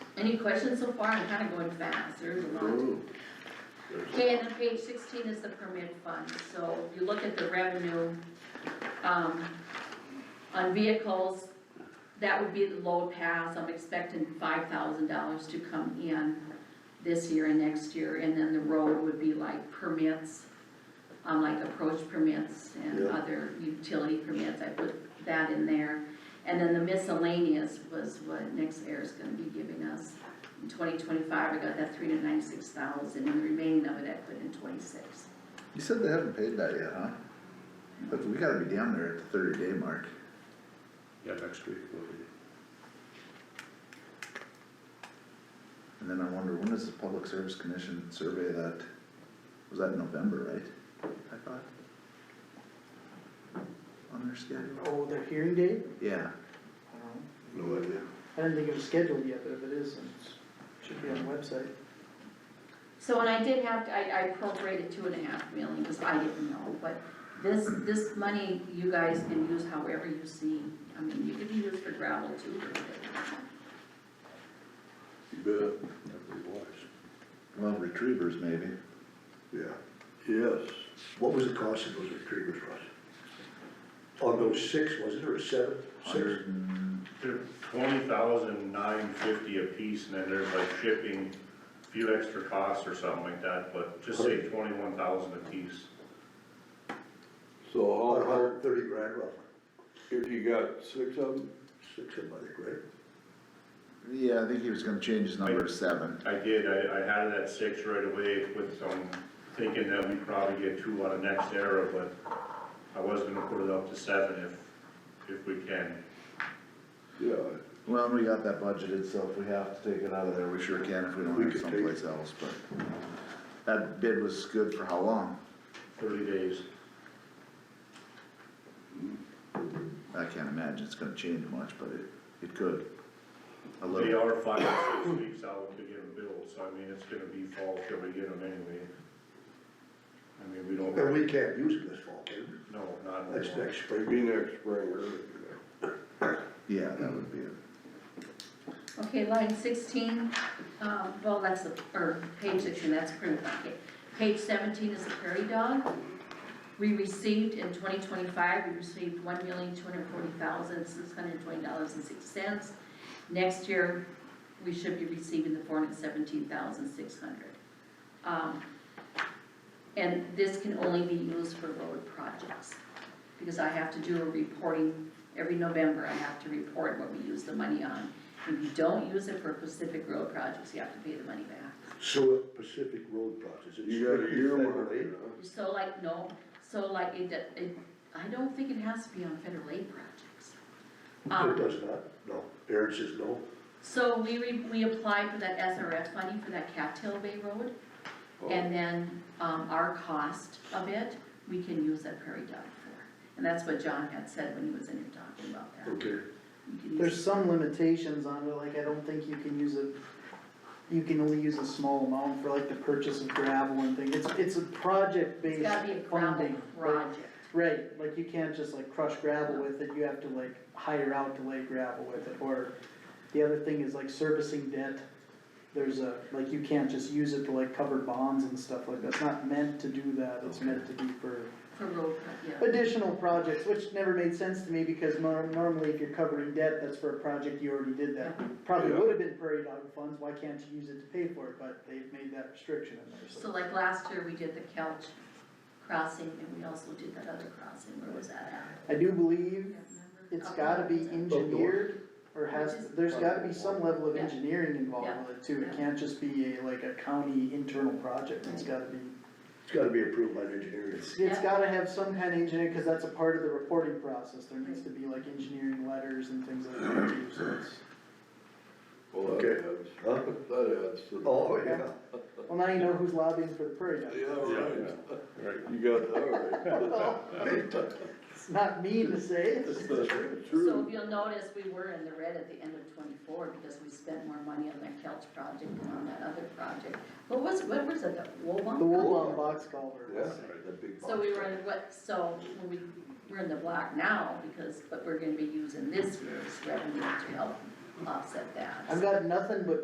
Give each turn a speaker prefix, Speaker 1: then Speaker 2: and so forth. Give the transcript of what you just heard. Speaker 1: Any questions so far? I'm kinda going fast, there's a lot. Okay, and then page sixteen is the permit fund, so if you look at the revenue, um, on vehicles, that would be the low pass, I'm expecting five thousand dollars to come in this year and next year, and then the road would be like permits, um, like approach permits and
Speaker 2: Yeah.
Speaker 1: other utility permits, I put that in there. And then the miscellaneous was what next air is gonna be giving us. In twenty twenty-five, I got that three hundred ninety-six thousand, and the remaining of it I put in twenty-six.
Speaker 2: You said they haven't paid that yet, huh? But we gotta be down there at the thirty day mark.
Speaker 3: Yeah, next week will be.
Speaker 2: And then I wonder, when does the Public Service Commission survey that? Was that in November, right? I thought? On their schedule?
Speaker 4: Oh, their hearing date?
Speaker 2: Yeah,
Speaker 4: I don't know.
Speaker 3: No idea.
Speaker 4: I didn't think it was scheduled yet, but if it is, then it should be on the website.
Speaker 1: So, and I did have, to- I, I prorated two and a half million, cause I didn't know, but this, this money you guys can use however you see. I mean, you could use for gravel too, or whatever.
Speaker 5: You bet,
Speaker 3: That'd be wise.
Speaker 2: well, retrievers maybe.
Speaker 5: yeah, yes. What was the cost of those retrievers, Russ? On those six, was it, or seven, six?
Speaker 2: Hundred and,
Speaker 6: They're twenty thousand nine fifty a piece, and then there's like shipping, a few extra costs or something like that, but just say twenty-one thousand a piece.
Speaker 5: So
Speaker 7: how-
Speaker 5: hundred and thirty grand roughly,
Speaker 7: If you got six of them,
Speaker 5: six of them, I think, right?
Speaker 2: yeah, I think he was gonna change his number to seven.
Speaker 6: I did, I, I had it at six right away with some, thinking that we'd probably get two out of next era, but I was gonna put it up to seven if, if we can.
Speaker 7: yeah,
Speaker 2: Well, and we got that budgeted, so if we have to take it out of there, we sure can if we don't
Speaker 5: We
Speaker 2: have it
Speaker 5: could take
Speaker 2: someplace else, but. That bid was good for how long?
Speaker 6: Thirty days.
Speaker 2: I can't imagine it's gonna change much, but it, it could. A
Speaker 6: They
Speaker 2: little,
Speaker 6: are five or six weeks out to get them billed, so I mean, it's gonna be fall till we get them anyway. I mean, we don't,
Speaker 5: And we can't use them this fall, can we?
Speaker 6: no, not.
Speaker 5: That's
Speaker 6: anymore.
Speaker 5: next spring.
Speaker 7: it'd be next spring or,
Speaker 2: yeah, that would be it.
Speaker 1: Okay, line sixteen, um, well, that's the, or page sixteen, that's print packet. Page seventeen is the prairie dog. We received in twenty twenty-five, we received one million, two hundred forty thousand, six hundred twenty dollars and six cents. Next year, we should be receiving the four hundred seventeen thousand, six hundred. Um, and this can only be used for road projects, because I have to do a reporting, every November I have to report what we use the money on. If you don't use it for Pacific Road projects, you have to pay the money back.
Speaker 5: So Pacific Road projects, it's.
Speaker 7: you got a year
Speaker 5: federal aid.
Speaker 1: So like, no, so like, it, it, I don't think it has to be on federal aid projects.
Speaker 5: It
Speaker 1: Um,
Speaker 5: does not, no, Aaron says no,
Speaker 1: so we, re- we applied for that SRF funding for that Cattail Bay Road,
Speaker 5: Oh.
Speaker 3: Oh.
Speaker 1: and then, um, our cost of it, we can use that prairie dog for. And that's what John had said when he was in here talking about that.
Speaker 5: okay.
Speaker 1: You can use-
Speaker 4: There's some limitations on it, like I don't think you can use it, you can only use a small amount for like the purchase of gravel and things. It's, it's a
Speaker 1: It's
Speaker 4: project-based
Speaker 1: gotta be a
Speaker 4: funding.
Speaker 1: gravel
Speaker 4: but-
Speaker 1: project.
Speaker 4: Right, like you can't just like crush gravel with it, you have to like hire out to lay gravel with it, or the other thing is like servicing debt. There's a, like you can't just use it to like cover bonds and stuff like that, it's not meant to do that, it's meant to be for
Speaker 1: for road, pro- yeah.
Speaker 4: additional projects, which never made sense to me because nor- normally if you're covering debt, that's for a project you already did that. Probably
Speaker 7: Yeah.
Speaker 4: would have been prairie dog funds, why can't you use it to pay for it, but they've made that restriction in there,
Speaker 1: So
Speaker 4: so.
Speaker 1: like last year, we did the Kelch crossing, and we also did that other crossing, where was that
Speaker 4: I do
Speaker 1: at?
Speaker 4: believe it's gotta be engineered, or has, there's gotta be some level of
Speaker 1: Yeah.
Speaker 4: engineering
Speaker 1: Yeah.
Speaker 4: involved with it too. It
Speaker 1: Yeah.
Speaker 4: can't just be a, like a county internal project, it's gotta be,
Speaker 5: It's gotta be approved by the engineering.
Speaker 4: it's, it's
Speaker 1: Yeah.
Speaker 4: gotta have some kind of engineering, cause that's a part of the reporting process. There needs to be like engineering letters and things like that too, so it's.
Speaker 7: well, that
Speaker 5: Okay.
Speaker 7: adds,
Speaker 5: Huh?
Speaker 7: that adds to. the-
Speaker 5: Oh, yeah,
Speaker 4: Well, now you know who's lobbying for the prairie dog.
Speaker 7: Yeah, right,
Speaker 3: Right.
Speaker 7: you got that
Speaker 4: Well, It's not me to say, it's just-
Speaker 7: right.
Speaker 1: So
Speaker 7: True.
Speaker 1: if you'll notice, we were in the red at the end of twenty-four, because we spent more money on that Kelch project than on that other project. What was, what was it, the Wobunk?
Speaker 4: the Woolong box culvert.
Speaker 7: Yeah,
Speaker 4: was-
Speaker 7: the big
Speaker 1: So we were in what, so when we, we're in the black now, because, but we're gonna be using this year's revenue to help offset that.
Speaker 4: I've got nothing but